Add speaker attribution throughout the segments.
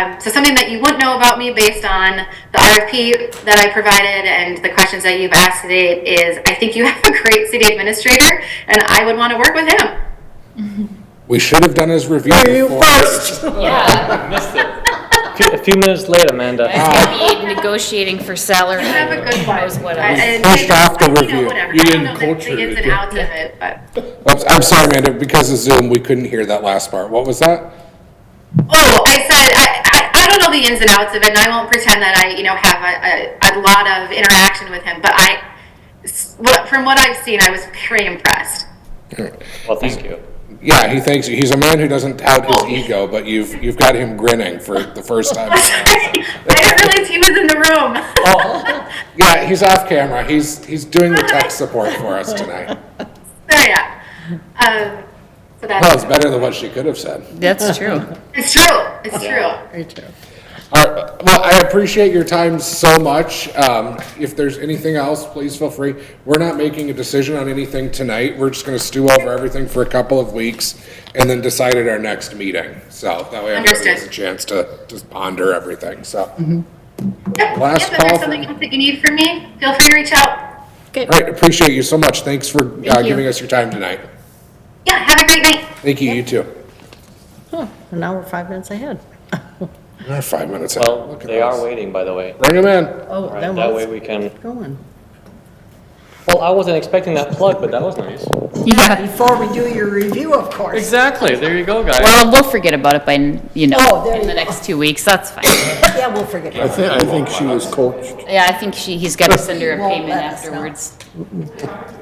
Speaker 1: Um, So something that you wouldn't know about me based on the RFP that I provided and the questions that you've asked today is I think you have a great city administrator and I would want to work with him.
Speaker 2: We should have done his review
Speaker 3: You
Speaker 2: before.
Speaker 3: first.
Speaker 4: Yeah,
Speaker 5: A few minutes late, Amanda.
Speaker 2: Ah,
Speaker 4: I need negotiating for salary.
Speaker 1: You have a good one.
Speaker 4: That was what
Speaker 1: I-
Speaker 4: I was.
Speaker 1: and-
Speaker 2: First off, the
Speaker 1: you know,
Speaker 2: review.
Speaker 1: whatever.
Speaker 6: You
Speaker 1: I don't
Speaker 6: didn't
Speaker 1: know the-
Speaker 6: culture
Speaker 1: The
Speaker 6: it,
Speaker 1: ins and
Speaker 6: yeah.
Speaker 1: outs of it, but,
Speaker 2: Oops, I'm sorry, Amanda, because of Zoom, we couldn't hear that last part. What was that?
Speaker 1: oh, I said, I, I, I don't know the ins and outs of it and I won't pretend that I, you know, have a, a, a lot of interaction with him, but I, s- what- from what I've seen, I was very impressed.
Speaker 5: Well, thank you.
Speaker 2: Yeah, he thinks, he's a man who doesn't tout his ego, but you've, you've got him grinning for the first time.
Speaker 1: I didn't realize he was in the room.
Speaker 2: Oh. Yeah, he's off camera. He's, he's doing the tech support for us tonight.
Speaker 1: So yeah, um, so
Speaker 2: Well,
Speaker 1: that's
Speaker 2: it's better than what she could have said.
Speaker 4: That's true.
Speaker 1: it's true. It's true.
Speaker 3: Very true.
Speaker 2: All right, well, I appreciate your time so much. Um, if there's anything else, please feel free. We're not making a decision on anything tonight. We're just gonna stew over everything for a couple of weeks and then decide at our next meeting. So that way everybody has a
Speaker 1: Understood.
Speaker 2: chance to just ponder everything, so.
Speaker 1: Yep. yep, if
Speaker 2: Last call
Speaker 1: there's
Speaker 2: for-
Speaker 1: something else that you need from me, feel free to reach out.
Speaker 2: All right, appreciate you so much. Thanks for uh,
Speaker 4: you.
Speaker 2: giving us your time tonight.
Speaker 1: Yeah. Have a great night.
Speaker 2: Thank you, you too.
Speaker 3: And now we're five minutes ahead.
Speaker 2: We're Five minutes out.
Speaker 5: Well,
Speaker 2: Look at
Speaker 5: they are
Speaker 2: us.
Speaker 5: waiting, by the way.
Speaker 2: Bring him in.
Speaker 3: Oh,
Speaker 5: Right,
Speaker 3: that
Speaker 5: That way we
Speaker 3: was
Speaker 5: can,
Speaker 3: going.
Speaker 5: well, I wasn't expecting that plug, but that was nice.
Speaker 3: Yeah, before we do your review, of course.
Speaker 5: Exactly, there you go, guys.
Speaker 4: Well, we'll forget about it by, you
Speaker 3: Oh,
Speaker 4: know,
Speaker 3: there
Speaker 4: in the
Speaker 3: you go.
Speaker 4: next two weeks, that's fine.
Speaker 3: Yeah, we'll forget.
Speaker 6: I think, I think she was coached.
Speaker 4: Yeah, I think she, he's gotta send her a
Speaker 3: Won't
Speaker 4: payment
Speaker 3: let us know.
Speaker 4: afterwards.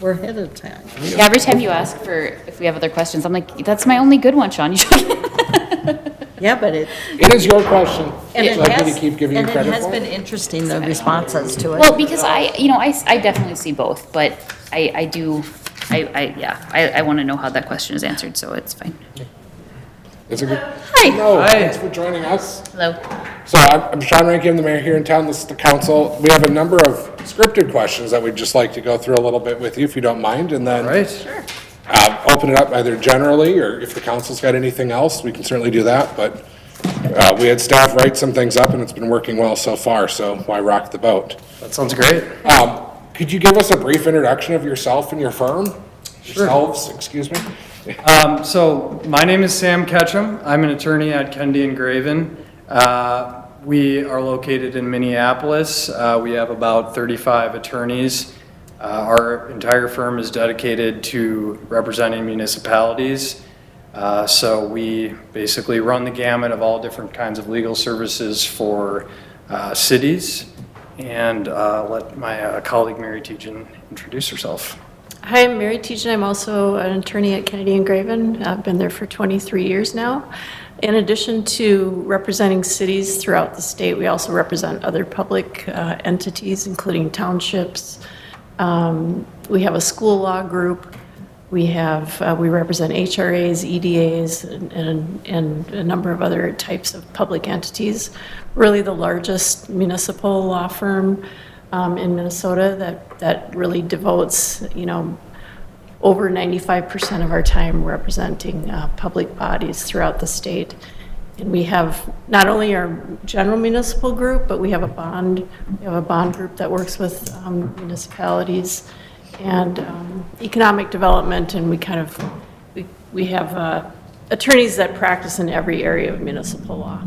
Speaker 3: We're ahead of time.
Speaker 4: Yeah, Every time you ask for, if we have other questions, I'm like, that's my only good one, Sean. You
Speaker 3: Yeah, but it.
Speaker 2: It is your question.
Speaker 3: and it
Speaker 2: So I'm gonna
Speaker 3: has-
Speaker 2: keep giving you
Speaker 3: And it
Speaker 2: credit
Speaker 3: has
Speaker 2: for it.
Speaker 3: been interesting, the responses to it.
Speaker 4: Well, because I, you know, I, s- I definitely see both, but I, I do, I, I, yeah, I, I wanna know how that question is answered, so it's fine.
Speaker 2: It's a good,
Speaker 4: Hi.
Speaker 2: no, thanks for joining us.
Speaker 4: Hello.
Speaker 2: So I'm I'm Sean Rankin, the mayor here in town, this is the council. We have a number of scripted questions that we'd just like to go through a little bit with you, if you don't mind, and then. uh, Open it up either generally, or if the council's got anything else, we can certainly do that, but uh, we had staff write some things up, and it's been working well so far, so why rock the boat?
Speaker 7: That sounds great.
Speaker 2: Um, Could you give us a brief introduction of yourself and your firm? Yourselves, excuse me?
Speaker 7: Um, so my name is Sam Ketchum. I'm an attorney at Kennedy and Graven. Uh, we are located in Minneapolis. Uh, we have about 35 attorneys. Uh, our entire firm is dedicated to representing municipalities. Uh, so we basically run the gamut of all different kinds of legal services for uh, cities. And uh, let my uh, colleague Mary Tejan introduce herself.
Speaker 8: Hi, I'm Mary Tejan. I'm also an attorney at Kennedy and Graven. I've been there for 23 years now. In addition to representing cities throughout the state, we also represent other public uh, entities, including townships. Um, We have a school law group. We have, uh, we represent HRAs, EDAs, E and- and, and a number of other types of public entities. Really the largest municipal law firm um, in Minnesota that, that really devotes, you know, over 95% of our time representing uh, public bodies throughout the state. And we have not only our general municipal group, but we have a bond, we have a bond group that works with um, municipalities and um, economic development, and we kind of, we we have uh, attorneys that practice in every area of municipal law.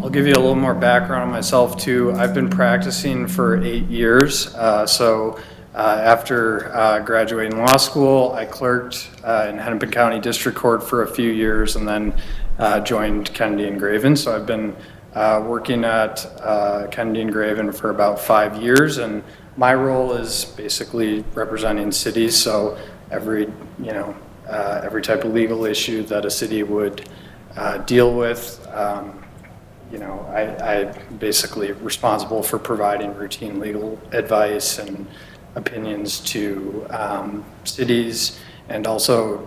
Speaker 7: I'll give you a little more background on myself too. I've been practicing for eight years. Uh, so uh, after uh, graduating law school, I clerked uh, in Hennepin County District Court for a few years and then uh, joined Kennedy and Graven. So I've been uh, working at uh, Kennedy and Graven for about five years, and my role is basically representing cities. So every you know uh, every type of legal issue that a city would uh, deal with. Um, you know, I, I basically responsible for providing routine legal advice and opinions to um, cities and also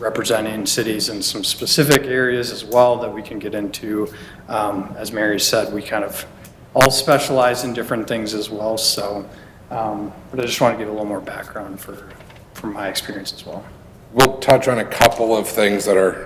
Speaker 7: representing cities in some specific areas as well that we can get into. Um, As Mary said, we kind of all specialize in different things as well, so, um, but I just want to give a little more background for, from my experience as well.
Speaker 2: we'll touch on a couple of things that are